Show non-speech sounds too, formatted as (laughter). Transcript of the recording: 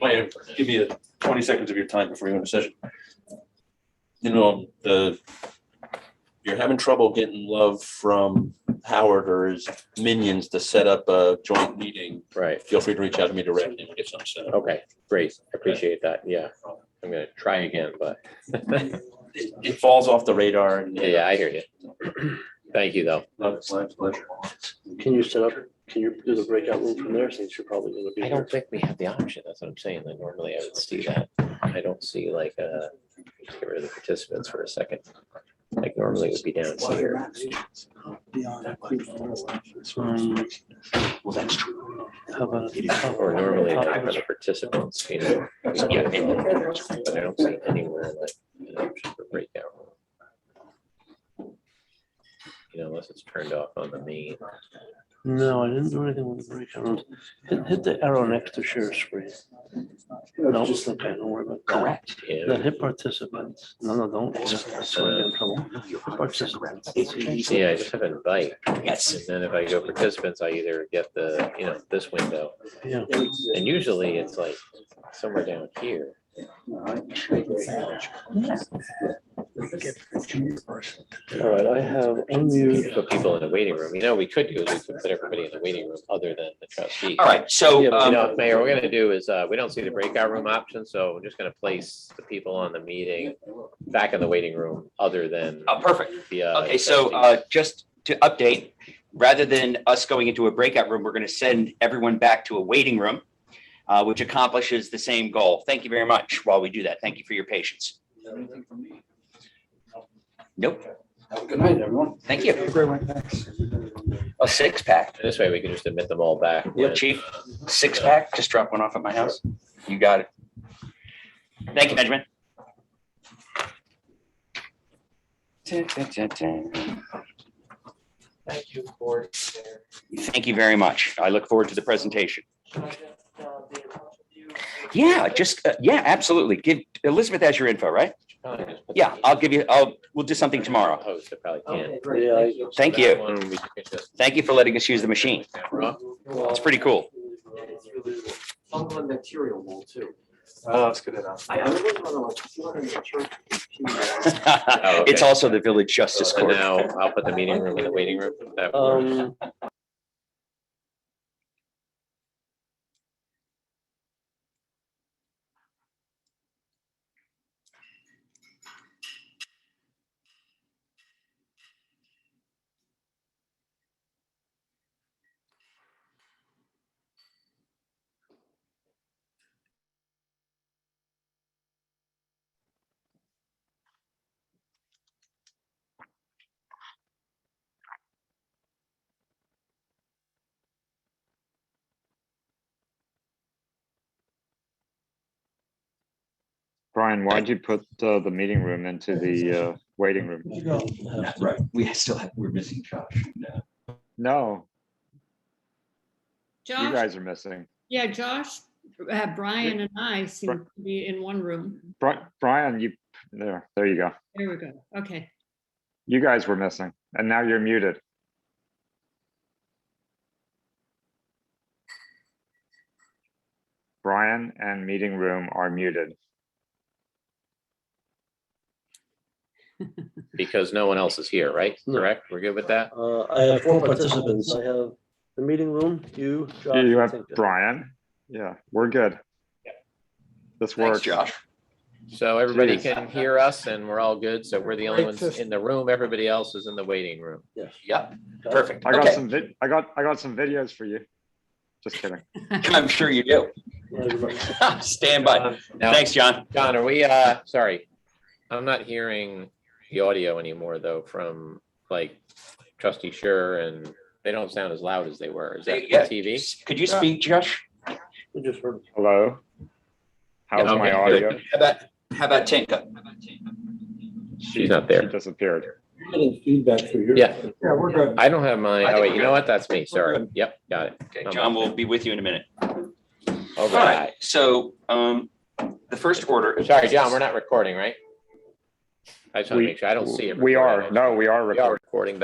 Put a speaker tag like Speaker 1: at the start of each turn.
Speaker 1: Wait, give me a twenty seconds of your time before you go into session. You know, the, you're having trouble getting love from Howard or his minions to set up a joint meeting.
Speaker 2: Right,
Speaker 1: Feel free to reach out to me directly and we'll get something set up.
Speaker 2: okay, great, I appreciate that, yeah. I'm gonna try again, but, (laughs)
Speaker 1: It, it falls off the radar and.
Speaker 2: yeah, I hear you. Thank you, though.
Speaker 1: No, it's my pleasure.
Speaker 3: Can you set up, can you do the breakout room from there since you're probably gonna be
Speaker 2: I
Speaker 3: here?
Speaker 2: don't think we have the option, that's what I'm saying, Like normally I would see that. I don't see like, uh, let's get rid of the participants for a second. Like normally it would be down here.
Speaker 3: Well, that's true. How about?
Speaker 2: Or normally like for the participants, you know. we get in there, But I don't see anywhere like an option for breakout. You know, unless it's turned off on the main.
Speaker 3: No, I didn't do anything with the breakout room. Hit, hit the arrow next to share screen. No, just okay, don't worry about that. Correct.
Speaker 2: yeah.
Speaker 3: Then hit participants. No, no, don't. worry. That's where I get in trouble. Participants.
Speaker 2: Yeah, I just have invite. Yes. And then if I go participants, I either get the, you know, this window,
Speaker 3: Yeah.
Speaker 2: and usually it's like somewhere down here.
Speaker 3: All right, I have unmute.
Speaker 2: Put people in the waiting room. You know, we could do is we could put everybody in the waiting room other than the trustee.
Speaker 4: All right, so,
Speaker 2: You know,
Speaker 4: um,
Speaker 2: Mayor, we're gonna do is, uh, we don't see the breakout room option, so we're just gonna place the people on the meeting back in the waiting room other than
Speaker 4: oh, perfect.
Speaker 2: via.
Speaker 4: Okay, so,
Speaker 2: trustees.
Speaker 4: uh, just to update, rather than us going into a breakout room, we're going to send everyone back to a waiting room, uh, which accomplishes the same goal. Thank you very much while we do that. Thank you for your patience. Nope. Have a good night, everyone. Thank you. A six pack.
Speaker 2: This way we can just admit them all back.
Speaker 4: Yeah,
Speaker 2: when-
Speaker 4: chief, six pack, just drop one off at my house. You got it. Thank you, Benjamin. Dun, dun, dun, dun.
Speaker 5: Thank you for there.
Speaker 4: Thank you very much. I look forward to the presentation.
Speaker 5: Can I just, uh, be in touch with you?
Speaker 4: Yeah, just, uh, yeah, absolutely. Give, Elizabeth has your info, right?
Speaker 2: Probably just put
Speaker 4: Yeah,
Speaker 2: the-
Speaker 4: I'll give you, I'll, we'll do something tomorrow. Oh.
Speaker 2: Host, I probably can.
Speaker 5: Okay, great.
Speaker 3: Yeah,
Speaker 5: Thank you.
Speaker 2: That
Speaker 4: Thank you.
Speaker 2: one we can just-
Speaker 4: Thank you for letting us use the machine. It's pretty cool.
Speaker 5: It's really cool. Fungal and bacterial mold too.
Speaker 6: Oh, that's good enough.
Speaker 5: I, I really want to like, see what in the church. Oh,
Speaker 4: It's also the village justice
Speaker 2: So
Speaker 4: court.
Speaker 2: now I'll put the meeting room in the waiting room. That works.
Speaker 3: Um.
Speaker 7: Brian, why'd you put uh, the meeting room into the uh, waiting room?
Speaker 8: Right, we still have, we're missing Josh. No.
Speaker 7: No, you
Speaker 9: Josh,
Speaker 7: guys are missing.
Speaker 9: yeah, Josh, uh, Brian and I seem to be in one room.
Speaker 7: Bri- Brian, you, there, there you go.
Speaker 9: There we go. Okay.
Speaker 7: You guys were missing, and now you're muted. Brian and meeting room are muted.
Speaker 2: Because no one else is here, right?
Speaker 3: No.
Speaker 2: Correct? We're good with that?
Speaker 3: Uh, I have four participants. I have the meeting room, you, Josh.
Speaker 7: You
Speaker 3: and
Speaker 7: have
Speaker 3: Tinka.
Speaker 7: Brian. Yeah, we're good. This
Speaker 4: Thanks,
Speaker 7: works.
Speaker 4: Josh.
Speaker 2: So everybody
Speaker 7: Jeez.
Speaker 2: can hear us and we're all good. So we're the only ones in the room. Everybody else is in the waiting room.
Speaker 3: Yes.
Speaker 4: Yep, perfect.
Speaker 7: I got
Speaker 4: Okay,
Speaker 7: some vid, I got, I got some videos for you. Just kidding.
Speaker 4: I'm sure you do. (laughs) Stand by.
Speaker 2: Now,
Speaker 4: Thanks, John.
Speaker 2: John, are we, uh, sorry, I'm not hearing the audio anymore though from like trustee Sure and they don't sound as loud as they were. Is that the
Speaker 4: Yeah.
Speaker 2: TV?
Speaker 4: Could you speak, Josh?
Speaker 3: We just heard.
Speaker 7: Hello? How's
Speaker 2: Yeah, okay,
Speaker 7: my audio?
Speaker 2: good.
Speaker 4: How about, how about Tinka?
Speaker 2: She's not
Speaker 7: She
Speaker 2: there.
Speaker 7: disappeared.
Speaker 3: Feedback for you.
Speaker 2: Yeah,
Speaker 6: Yeah, we're good.
Speaker 2: I don't have my,
Speaker 4: I
Speaker 2: oh
Speaker 4: think
Speaker 2: wait,
Speaker 4: we're
Speaker 2: you know what? That's me. Sorry. Yep, got it.
Speaker 4: Okay, John will be with you in a minute.
Speaker 2: All
Speaker 4: All right,
Speaker 2: right.
Speaker 4: so um, the first order.
Speaker 2: Sorry, John, we're not recording, right? I just want
Speaker 7: We-
Speaker 2: to make sure. I don't see it.
Speaker 7: We
Speaker 2: recorded.
Speaker 7: are, no, we are
Speaker 2: We are
Speaker 7: recording.
Speaker 2: recording,